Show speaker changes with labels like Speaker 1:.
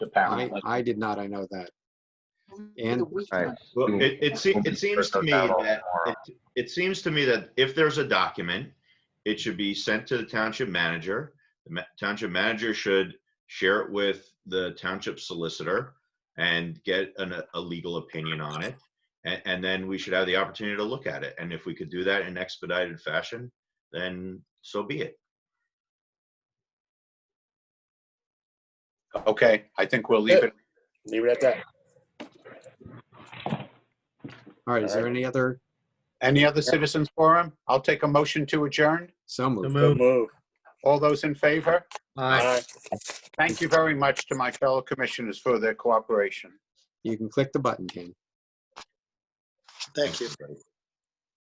Speaker 1: I,
Speaker 2: apparently.
Speaker 1: I did not, I know that. And,
Speaker 3: Right.
Speaker 4: Well,
Speaker 3: Mm.
Speaker 4: it, it seems, it seems to me that,
Speaker 3: Tomorrow.
Speaker 4: it, it seems to me that if there's a document, it should be sent to the township manager. The ma- township manager should share it with the township solicitor and get an, a legal opinion on it. And, and then we should have the opportunity to look at it. And if we could do that in expedited fashion, then so be it.
Speaker 2: Okay, I think we'll leave it.
Speaker 5: Leave it at that.
Speaker 1: all right, is there any other,
Speaker 2: Any other citizens forum? I'll take a motion to adjourn.
Speaker 1: so moved.
Speaker 5: So move.
Speaker 2: All those in favor?
Speaker 5: Aye.
Speaker 2: Thank you very much to my fellow commissioners for their cooperation.
Speaker 1: You can click the button, Ken.
Speaker 6: Thank you.